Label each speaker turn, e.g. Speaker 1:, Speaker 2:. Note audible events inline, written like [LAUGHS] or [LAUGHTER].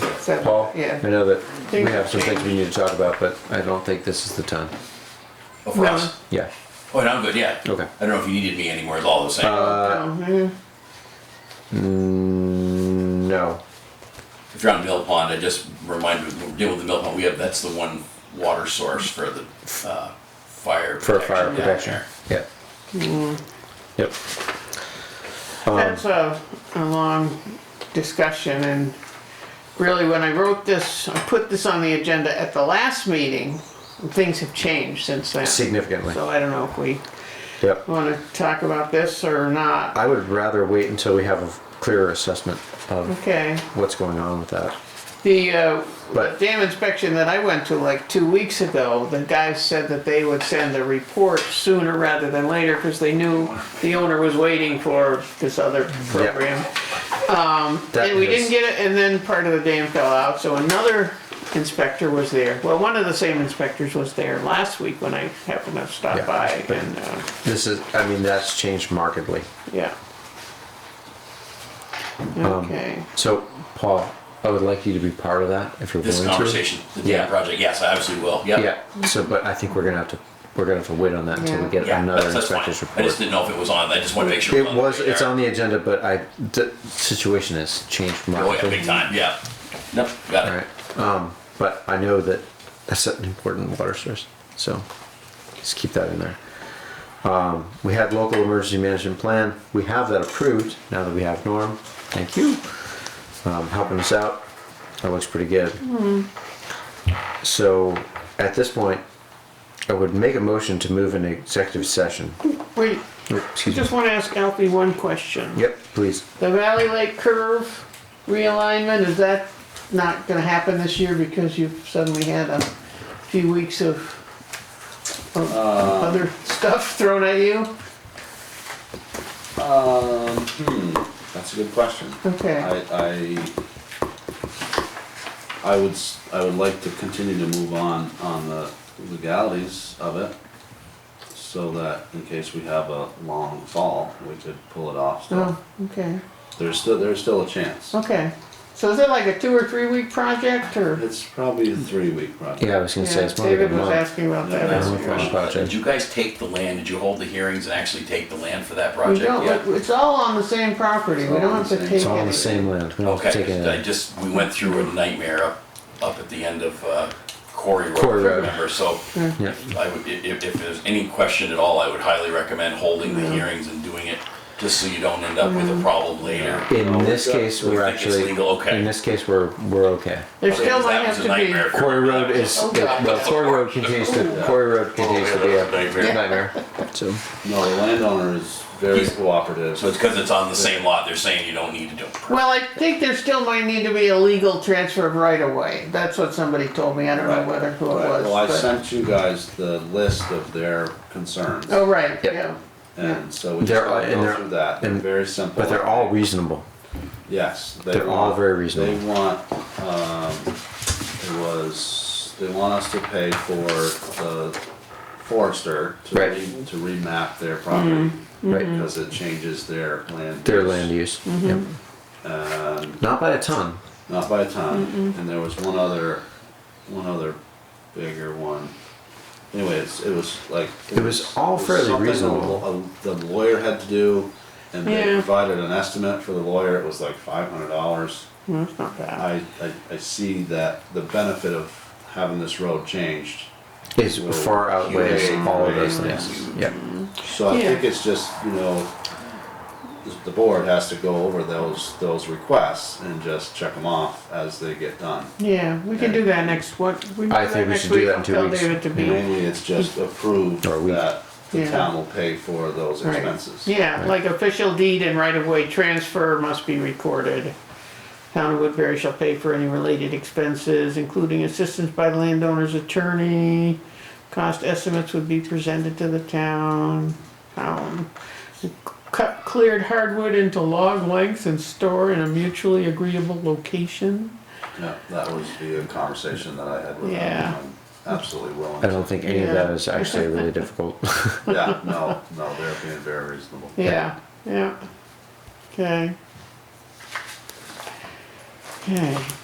Speaker 1: So,
Speaker 2: Paul? I
Speaker 1: Yeah.
Speaker 2: know that we have some things we need to talk about, but I don't think this is the time.
Speaker 3: Oh, for
Speaker 1: No.
Speaker 3: us.
Speaker 2: Yeah,
Speaker 3: Oh, and I'm good. Yeah.
Speaker 2: okay.
Speaker 3: I don't know if you needed me anymore. It's all the same.
Speaker 2: Uh,
Speaker 1: Um,
Speaker 2: Mm, No.
Speaker 3: if you're on Mill Pond, I just remind you, we're dealing with the Mill Pond. We have that's the one water source for the uh, fire
Speaker 2: For fire
Speaker 3: down
Speaker 2: protection.
Speaker 3: there.
Speaker 2: Yeah.
Speaker 1: Mm.
Speaker 2: Yep.
Speaker 1: That's a, a long discussion and really when I wrote this, I put this on the agenda at the last meeting. Things have changed since then.
Speaker 2: Significantly.
Speaker 1: So I don't know if we
Speaker 2: Yep.
Speaker 1: wanna talk about this or not.
Speaker 2: I would rather wait until we have a clearer assessment of
Speaker 1: Okay.
Speaker 2: what's going on with that.
Speaker 1: The uh,
Speaker 2: But-
Speaker 1: dam inspection that I went to like two weeks ago, the guys said that they would send a report sooner rather than later because they knew the owner was waiting for this other program.
Speaker 2: That
Speaker 1: And we didn't
Speaker 2: is-
Speaker 1: get it, and then part of the dam fell out, so another inspector was there. Well, one of the same inspectors was there last week when I happened to
Speaker 2: Yeah,
Speaker 1: stop by
Speaker 2: but-
Speaker 1: and, uh,
Speaker 2: This is, I mean, that's changed markedly.
Speaker 1: yeah.
Speaker 2: Um,
Speaker 1: Okay,
Speaker 2: So, Paul, I would like you to be part of that if you're willing
Speaker 3: This
Speaker 2: to.
Speaker 3: conversation, the
Speaker 2: Yeah.
Speaker 3: dam project. Yes, I absolutely will. Yep.
Speaker 2: Yeah, so, but I think we're gonna have to, we're gonna have to wait on that until we
Speaker 1: Yeah.
Speaker 2: get
Speaker 3: Yeah,
Speaker 2: another
Speaker 3: that's, that's fine.
Speaker 2: inspector's
Speaker 3: I just
Speaker 2: report.
Speaker 3: didn't know if it was on. I just want to make sure.
Speaker 2: It was,
Speaker 3: the
Speaker 2: it's
Speaker 3: radar.
Speaker 2: on the agenda, but I, the situation has changed
Speaker 3: Oh yeah,
Speaker 2: markedly.
Speaker 3: big time. Yeah. Nope. Got it.
Speaker 2: Alright, um, but I know that that's an important water source, so just keep that in there. Um, we had local emergency management plan, we have that approved, now that we have Norm, thank you. Um, helping us out, that looks pretty good. So, at this point, I would make a motion to move into executive session.
Speaker 1: wait,
Speaker 2: Oop,
Speaker 1: I
Speaker 2: Excuse me.
Speaker 1: just wanna ask Alfie one question.
Speaker 2: Yep, please,
Speaker 1: The Valley Lake curve realignment, is that not gonna happen this year because you've suddenly had a few weeks of, of other [LAUGHS] stuff thrown at you?
Speaker 4: Um, hmm, that's a good question.
Speaker 1: Okay,
Speaker 4: I, I, I would, s- I would like to continue to move on, on the legalities of it. So that in case we have a long fall, we could pull it off still.
Speaker 1: oh, okay,
Speaker 4: There's still, there's still a chance.
Speaker 1: okay. So is it like a two or three week project or?
Speaker 4: It's probably a three-week project.
Speaker 2: yeah, I was gonna say,
Speaker 1: Yeah,
Speaker 2: it's more than a
Speaker 1: David was
Speaker 2: month.
Speaker 1: asking about
Speaker 4: Yeah,
Speaker 1: that.
Speaker 4: that's-
Speaker 1: earlier.
Speaker 2: Fun
Speaker 3: Did
Speaker 2: project.
Speaker 3: you guys take the land? Did you hold the hearings and actually take the land for that
Speaker 1: We
Speaker 3: project?
Speaker 1: don't,
Speaker 3: yeah.
Speaker 1: it's all on the same property, we
Speaker 4: It's all
Speaker 1: don't
Speaker 4: on
Speaker 1: have
Speaker 4: the
Speaker 1: to
Speaker 4: same-
Speaker 1: take
Speaker 2: It's all the
Speaker 1: anything.
Speaker 2: same land, we don't have to take
Speaker 3: Okay.
Speaker 2: it.
Speaker 3: I just we went through a nightmare up up at the end of uh, Quarry Road.
Speaker 2: Quarry
Speaker 3: if I
Speaker 2: Road.
Speaker 3: Remember so.
Speaker 1: Hmm.
Speaker 2: Yeah.
Speaker 3: I would, if, if if there's any question at all, I would highly recommend holding
Speaker 1: Hmm.
Speaker 3: the hearings and doing it, just so you don't end up with a problem later.
Speaker 2: In this
Speaker 4: got-
Speaker 2: case,
Speaker 3: we
Speaker 2: we're
Speaker 3: think it's
Speaker 2: actually,
Speaker 3: legal, okay.
Speaker 2: in this case, we're, we're okay.
Speaker 1: There still
Speaker 3: Because
Speaker 1: might
Speaker 3: that
Speaker 1: have
Speaker 3: was a
Speaker 1: to be,
Speaker 3: nightmare if you
Speaker 2: Quarry
Speaker 3: remember
Speaker 2: Road
Speaker 3: that.
Speaker 2: is,
Speaker 1: Oh,
Speaker 2: it-
Speaker 1: God.
Speaker 2: well, Quarry Road continues to, Quarry Road continues to be a
Speaker 3: Nightmare.
Speaker 2: nightmare, so.
Speaker 4: No, the landowner is very
Speaker 3: He's-
Speaker 4: cooperative.
Speaker 3: So it's because it's on the same lot, they're saying you don't need to do it.
Speaker 1: well, I think there still might need to be a legal transfer of right of way, that's what somebody told me, I don't know
Speaker 4: Right.
Speaker 1: whether who it
Speaker 4: Right,
Speaker 1: was.
Speaker 4: Well, I
Speaker 1: but-
Speaker 4: sent you guys the list of their concerns.
Speaker 1: Oh, right,
Speaker 2: Yep.
Speaker 1: yeah.
Speaker 4: And so we just
Speaker 2: They're-
Speaker 4: gotta
Speaker 2: and
Speaker 4: go
Speaker 2: they're-
Speaker 4: through that, they're
Speaker 2: and-
Speaker 4: very simple.
Speaker 2: But they're all reasonable.
Speaker 4: Yes. they
Speaker 2: they're all
Speaker 4: want-
Speaker 2: very reasonable.
Speaker 4: They want, um, it was, they want us to pay for the forester to
Speaker 2: Right.
Speaker 4: re, to remap their property.
Speaker 2: Right. mhm.
Speaker 4: Because it changes their land.
Speaker 2: Their
Speaker 4: use,
Speaker 2: land use, yep.
Speaker 4: Um,
Speaker 2: Not by a ton,
Speaker 4: not by a ton, and there was one other, one other bigger one. Anyways, it was like.
Speaker 2: It was all
Speaker 4: it was
Speaker 2: fairly
Speaker 4: something the
Speaker 2: reasonable.
Speaker 4: lo- uh, The lawyer had to do, and they
Speaker 1: Yeah.
Speaker 4: provided an estimate for the lawyer, it was like five hundred dollars.
Speaker 1: Well, That's not bad.
Speaker 4: I, I, I see that the benefit of having this road changed,
Speaker 2: is far outweighs
Speaker 4: Huge.
Speaker 2: all of those things, yeah.
Speaker 4: so I think
Speaker 1: Yeah.
Speaker 4: it's just, you know, the- the board has to go over those, those requests and just check them off as they get done.
Speaker 1: Yeah, we can do that next, what, we can
Speaker 2: I
Speaker 1: do
Speaker 2: think
Speaker 1: that
Speaker 2: we
Speaker 1: next
Speaker 2: should do
Speaker 1: week,
Speaker 2: that in two
Speaker 1: tell
Speaker 2: weeks.
Speaker 1: David to be.
Speaker 4: Mainly, it's just approved
Speaker 2: Or we-
Speaker 4: that the
Speaker 1: Yeah.
Speaker 4: town will pay for those
Speaker 1: right.
Speaker 4: expenses.
Speaker 1: Yeah, like official deed and right of way transfer must be recorded. Town of Woodbury shall pay for any related expenses, including assistance by the landowner's attorney. Cost estimates would be presented to the town. Town. Cut cleared hardwood into log lengths and store in a mutually agreeable location.
Speaker 4: Yeah, that was the conversation that I had with
Speaker 1: Yeah.
Speaker 4: them. I'm Absolutely willing.
Speaker 2: I don't think any of
Speaker 1: Yeah.
Speaker 2: that is actually really difficult.
Speaker 4: [LAUGHS] Yeah,
Speaker 2: [LAUGHS]
Speaker 4: no, no, they're being very reasonable.
Speaker 1: Yeah, yeah. Okay. Okay.